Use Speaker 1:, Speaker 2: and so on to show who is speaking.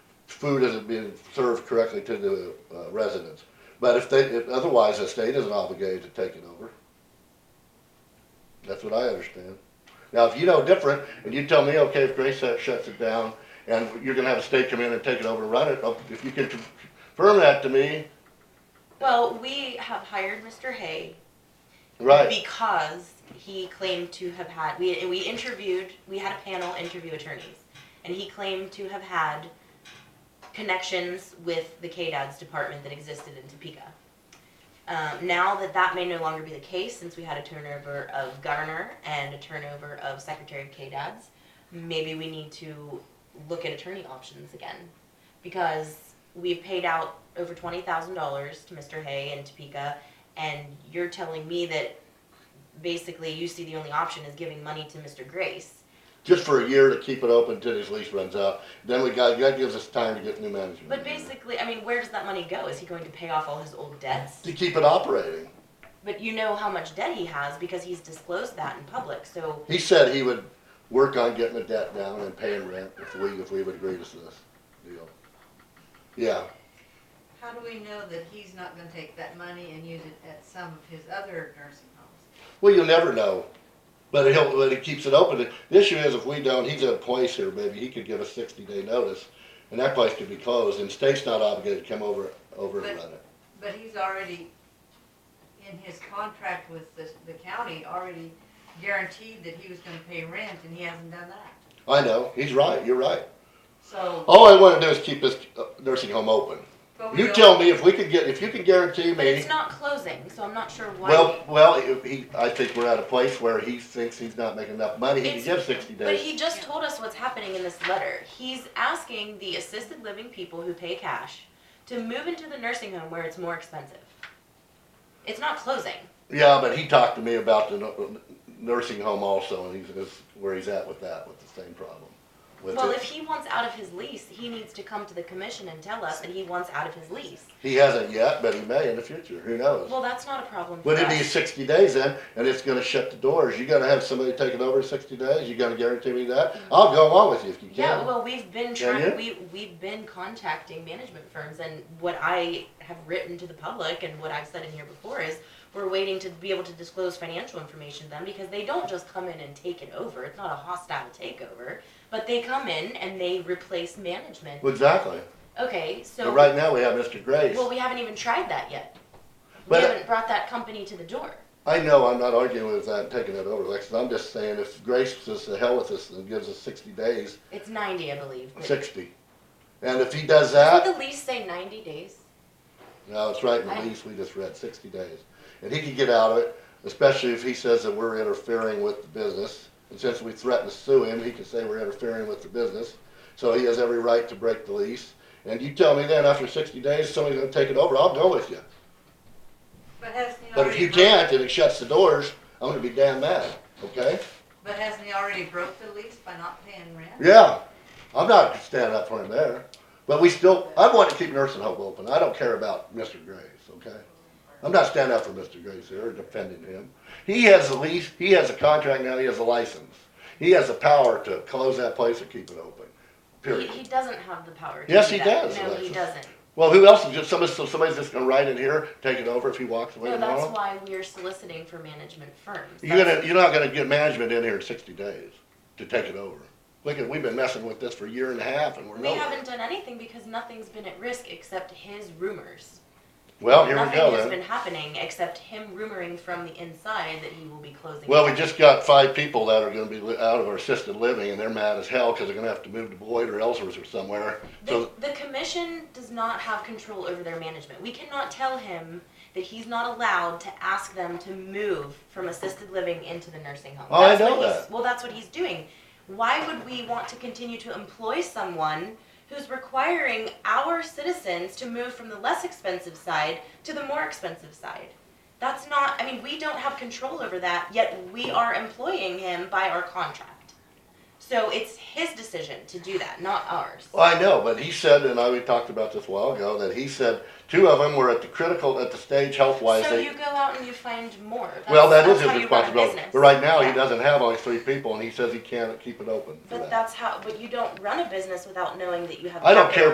Speaker 1: food isn't being served correctly to the uh, residents. But if they, if otherwise, the state isn't obligated to take it over. That's what I understand. Now, if you know different, and you tell me, okay, if Grace Set shuts it down, and you're gonna have a state come in and take it over and run it, oh, if you can confirm that to me,
Speaker 2: Well, we have hired Mr. Hay
Speaker 1: right,
Speaker 2: because he claimed to have had we we interviewed we had a panel interview attorneys, and he claimed to have had connections with the KDAD's department that existed in Topeka. Um, now that that may no longer be the case, since we had a turnover of governor and a turnover of secretary of KDAD's, maybe we need to look at attorney options again, because we've paid out over twenty thousand dollars to Mr. Hay and Topeka, and you're telling me that basically you see the only option is giving money to Mr. Grace.
Speaker 1: just for a year to keep it open until his lease runs out. Then we got, that gives us time to get new management.
Speaker 2: But basically, I mean, where does that money go? Is he going to pay off all his old debts?
Speaker 1: To keep it operating.
Speaker 2: But you know how much debt he has because he's disclosed that in public, so
Speaker 1: He said he would work on getting the debt down and paying rent if we, if we would agree to this deal. Yeah,
Speaker 3: How do we know that he's not gonna take that money and use it at some of his other nursing homes?
Speaker 1: well, you'll never know, but he'll, but he keeps it open. The issue is if we don't, he's at a place here, maybe he could give a sixty day notice, and that place could be closed, and state's not obligated to come over, over and run it.
Speaker 3: But he's already, in his contract with the, the county, already guaranteed that he was gonna pay rent and he hasn't done that.
Speaker 1: I know, he's right, you're right.
Speaker 3: So.
Speaker 1: All I wanna do is keep this uh, nursing home open.
Speaker 3: but we
Speaker 1: You
Speaker 3: don't-
Speaker 1: tell me if we could get, if you can guarantee
Speaker 2: but
Speaker 1: me,
Speaker 2: it's not closing, so I'm not sure why.
Speaker 1: well, well, if he, I think we're at a place where he thinks he's not making enough money, he can
Speaker 2: It's-
Speaker 1: give sixty days.
Speaker 2: But he just told us what's happening in this letter. He's asking the assisted living people who pay cash to move into the nursing home where it's more expensive. It's not closing.
Speaker 1: Yeah, but he talked to me about the nu- nursing home also, and he's, is where he's at with that, with the same problem. With
Speaker 2: Well,
Speaker 1: it.
Speaker 2: if he wants out of his lease, he needs to come to the commission and tell us that he wants out of his lease.
Speaker 1: He hasn't yet, but he may in the future, who knows?
Speaker 2: Well, that's not a problem for
Speaker 1: Would it be
Speaker 2: us.
Speaker 1: sixty days in, and it's gonna shut the doors, you gotta have somebody take it over in sixty days, you gotta guarantee me that? I'll go along with you if you
Speaker 2: Yeah,
Speaker 1: can.
Speaker 2: well, we've been
Speaker 1: Can
Speaker 2: trying, we, we've been contacting management firms and what I have written to the public and what I've said in here before is we're waiting to be able to disclose financial information to them because they don't just come in and take it over. It's not a hostile takeover, but they come in and they replace management.
Speaker 1: Well, Exactly,
Speaker 2: Okay, so.
Speaker 1: but right now we have Mr. Grace.
Speaker 2: Well, we haven't even tried that yet. We
Speaker 1: But- uh,
Speaker 2: haven't brought that company to the door.
Speaker 1: I know I'm not arguing with that, and taking that over, Lex, I'm just saying if Grace says to hell with us and gives us sixty days,
Speaker 2: It's ninety, I believe. but-
Speaker 1: sixty. And if he does that.
Speaker 2: Doesn't the lease say ninety days?
Speaker 1: No, it's right in the
Speaker 2: I-
Speaker 1: lease we just read, sixty days. And he can get out of it, especially if he says that we're interfering with the business. And since we threatened to sue him, he can say we're interfering with the business. So he has every right to break the lease. And you tell me then after sixty days, somebody's gonna take it over, I'll go with you.
Speaker 3: But hasn't he
Speaker 1: But if
Speaker 3: already?
Speaker 1: you
Speaker 3: broke-
Speaker 1: can't and it shuts the doors, I'm gonna be damn mad, okay?
Speaker 3: But hasn't he already broke the lease by not paying rent?
Speaker 1: Yeah, I'm not standing up for him there. But we still, I want to keep nursing home open. I don't care about Mr. Grace, okay? I'm not standing up for Mr. Grace here or defending him. He has a lease, he has a contract now, he has a license. He has the power to close that place or keep it open,
Speaker 2: He,
Speaker 1: period.
Speaker 2: he doesn't have the power to do
Speaker 1: Yes, he
Speaker 2: that.
Speaker 1: does,
Speaker 2: No, he
Speaker 1: Alexis.
Speaker 2: doesn't.
Speaker 1: Well, who else is just, somebody, so somebody's just gonna ride in here, take it over if he walks away
Speaker 2: No, that's
Speaker 1: tomorrow?
Speaker 2: why we're soliciting for management firms.
Speaker 1: You're gonna,
Speaker 2: That's-
Speaker 1: you're not gonna get management in here in sixty days to take it over. Look at, we've been messing with this for a year and a half and we're
Speaker 2: We
Speaker 1: nowhere.
Speaker 2: haven't done anything because nothing's been at risk except his rumors.
Speaker 1: Well, here we go
Speaker 2: Nothing has
Speaker 1: then.
Speaker 2: been happening except him rumoring from the inside that he will be closing.
Speaker 1: Well, we
Speaker 2: down.
Speaker 1: just got five people that are gonna be li- out of our assisted living, and they're mad as hell, cause they're gonna have to move to Boyd or Ellsworth or somewhere.
Speaker 2: The,
Speaker 1: So,
Speaker 2: the commission does not have control over their management. We cannot tell him that he's not allowed to ask them to move from assisted living into the nursing home.
Speaker 1: Oh, I
Speaker 2: That's what
Speaker 1: know
Speaker 2: he's-
Speaker 1: that.
Speaker 2: Well, that's what he's doing. Why would we want to continue to employ someone who's requiring our citizens to move from the less expensive side to the more expensive side? That's not, I mean, we don't have control over that, yet we are employing him by our contract. So it's his decision to do that, not ours.
Speaker 1: Well, I know, but he said, and I, we talked about this a while ago, that he said two of them were at the critical, at the stage health-wise.
Speaker 2: So
Speaker 1: they-
Speaker 2: you go out and you find more. That's,
Speaker 1: Well, that is
Speaker 2: that's
Speaker 1: his
Speaker 2: how you run a
Speaker 1: responsibility,
Speaker 2: business.
Speaker 1: but right now, he
Speaker 2: Yeah.
Speaker 1: doesn't have only three people, and he says he can't keep it open for
Speaker 2: But
Speaker 1: that.
Speaker 2: that's how. But you don't run a business without knowing that you have.
Speaker 1: I don't
Speaker 2: capital.
Speaker 1: care